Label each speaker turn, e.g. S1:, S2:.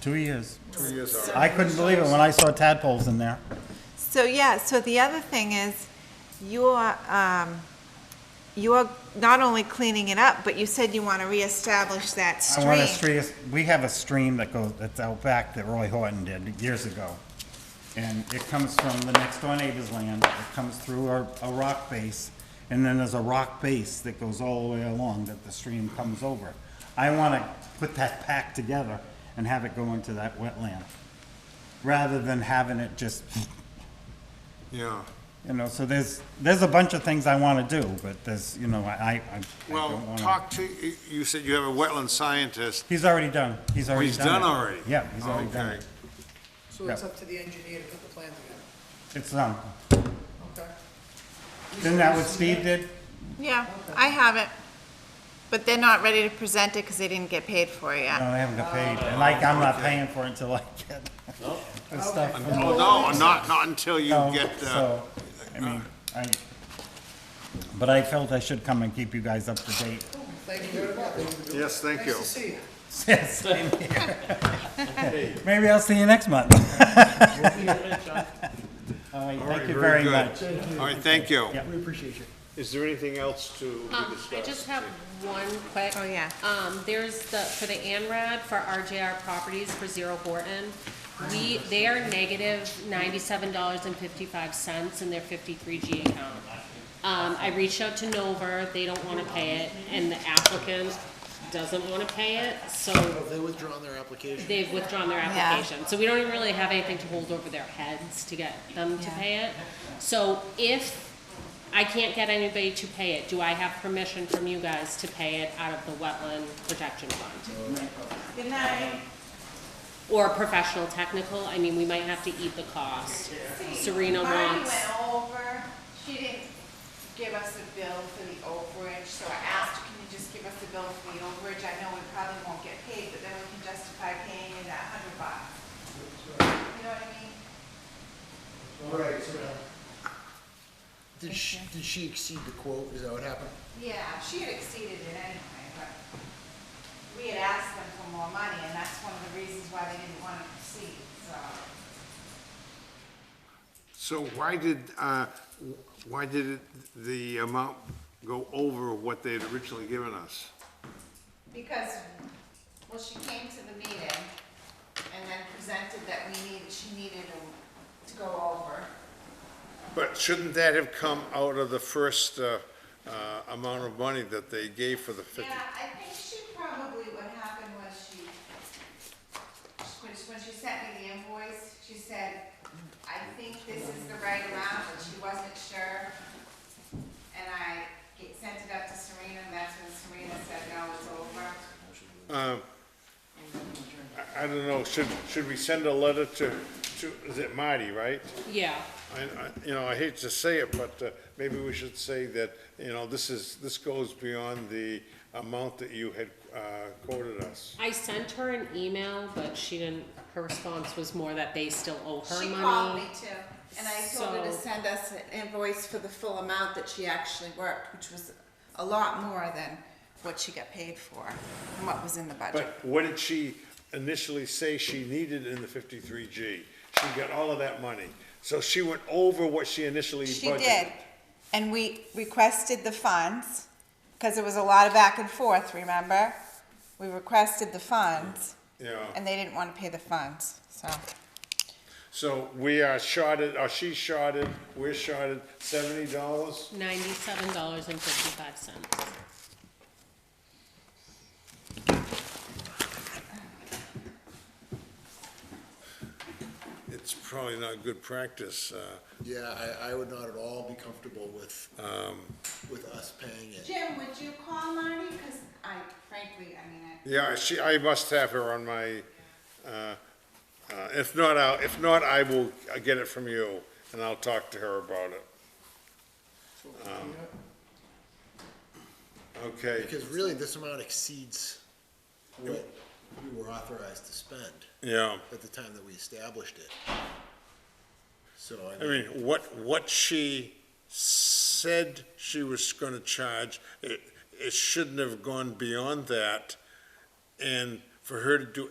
S1: Two years.
S2: Two years out.
S1: I couldn't believe it when I saw tadpoles in there.
S3: So, yeah, so the other thing is, you're, um, you're not only cleaning it up, but you said you want to reestablish that
S1: I want to
S3: stream.
S1: stream, we have a stream that goes, that's out back that Roy Horton did years ago. And it comes from the next door neighbor's land, it comes through a, a rock base, and then there's a rock base that goes all the way along that the stream comes over. I want to put that pack together and have it go into that wetland, rather than having it just,
S2: Yeah,
S1: you know, so there's, there's a bunch of things I want to do, but there's, you know, I, I- I
S2: well,
S1: don't want to.
S2: talk to, you- you said you have a wetland scientist.
S1: He's already done, he's
S2: Oh,
S1: already done
S2: he's done
S1: it.
S2: already?
S1: Yeah, he's already done
S2: Okay.
S1: it.
S4: So it's up to the engineer to put the plan together,
S1: It's done.
S4: okay?
S1: Isn't that what Steve did?
S3: Yeah, I have it, but they're not ready to present it because they didn't get paid for it yet.
S1: No, they haven't got paid. And like, I'm not paying for it until I get the stuff. from them.
S2: Oh, no, not, not until you
S1: No,
S2: get, uh,
S1: So, I mean, I, but I felt I should come and keep you guys up to date.
S4: Thank you very much.
S2: yes, thank you.
S4: Nice to see you.
S1: Yes, same here. Maybe I'll see you next month. All right, thank you very much.
S2: All right, thank you.
S1: Yeah.
S5: We appreciate you.
S2: Is there anything else to
S6: Um, I just have one quick.
S3: Oh, yeah.
S6: Um, there's the, for the ANRAD for RJR Properties for Zero Borton. We, they are negative ninety-seven dollars and fifty-five cents in their fifty-three G account. Um, I reached out to Dover, they don't wanna pay it, and the applicant doesn't wanna pay it, so
S5: Have they withdrawn their application?
S6: they've withdrawn their
S3: Yeah.
S6: application. So we don't even really have anything to hold over their heads to get them to
S3: Yeah.
S6: pay it. So if I can't get anybody to pay it, do I have permission from you guys to pay it out of the wetland protection fund?
S3: Good night.
S6: Or professional technical, I mean, we might have to eat the cost. Serena
S3: Marty
S6: wants,
S3: went over, she didn't give us a bill for the overage, so I asked, can you just give us a bill for the overage? I know we probably won't get paid, but then we can justify paying you that hundred bucks. You know what I mean?
S5: Right, so. uh, Did she, did she exceed the quote? Is that what happened?
S3: Yeah, she had exceeded it anyway, but we had asked them for more money, and that's one of the reasons why they didn't want to proceed, so.
S2: So why did, uh, why did it- the amount go over what they had originally given us?
S3: Because, well, she came to the meeting and then presented that we needed, she needed to go over.
S2: But shouldn't that have come out of the first uh, uh, amount of money that they gave for the fifty?
S3: Yeah, I think she probably, what happened was she, when, when she sent me the invoice, she said, I think this is the right amount, but she wasn't sure. And I get- sent it up to Serena, and that's when Serena said, no, it's over.
S2: I- I don't know, should, should we send a letter to, to, is it Marty, right?
S6: yeah,
S2: I, I, you know, I hate to say it, but uh, maybe we should say that, you know, this is, this goes beyond the amount that you had uh, quoted us.
S6: I sent her an email, but she didn't, her response was more that they still owe her
S3: She
S6: money.
S3: called me too, and I told her to
S6: So-
S3: send us an invoice for the full amount that she actually worked, which was a lot more than what she got paid for, and what was in the budget.
S2: But what did she initially say she needed in the fifty-three G? She got all of that money, so she went over what she initially
S3: She
S2: budgeted.
S3: did, and we requested the funds, because there was a lot of back and forth, remember? We requested the funds,
S2: Yeah,
S3: and they didn't wanna pay the funds, so.
S2: so we are shorted, or she shorted, we're shorted seventy dollars?
S6: Ninety-seven dollars and fifty-five cents.
S2: It's probably not good practice, uh,
S5: Yeah, I, I would not at all be comfortable with,
S2: um,
S5: with us paying it.
S3: Jim, would you call Marty, cause I frankly, I mean, I.
S2: Yeah, she, I must have her on my, uh, uh, if not, I'll, if not, I will get it from you, and I'll talk to her about it. Um, Okay,
S5: Because really, this amount exceeds what we were authorized to spend
S2: yeah,
S5: at the time that we established it. So, I
S2: I
S5: mean,
S2: mean, what, what she said she was gonna charge, it, it shouldn't have gone beyond that. And for her to do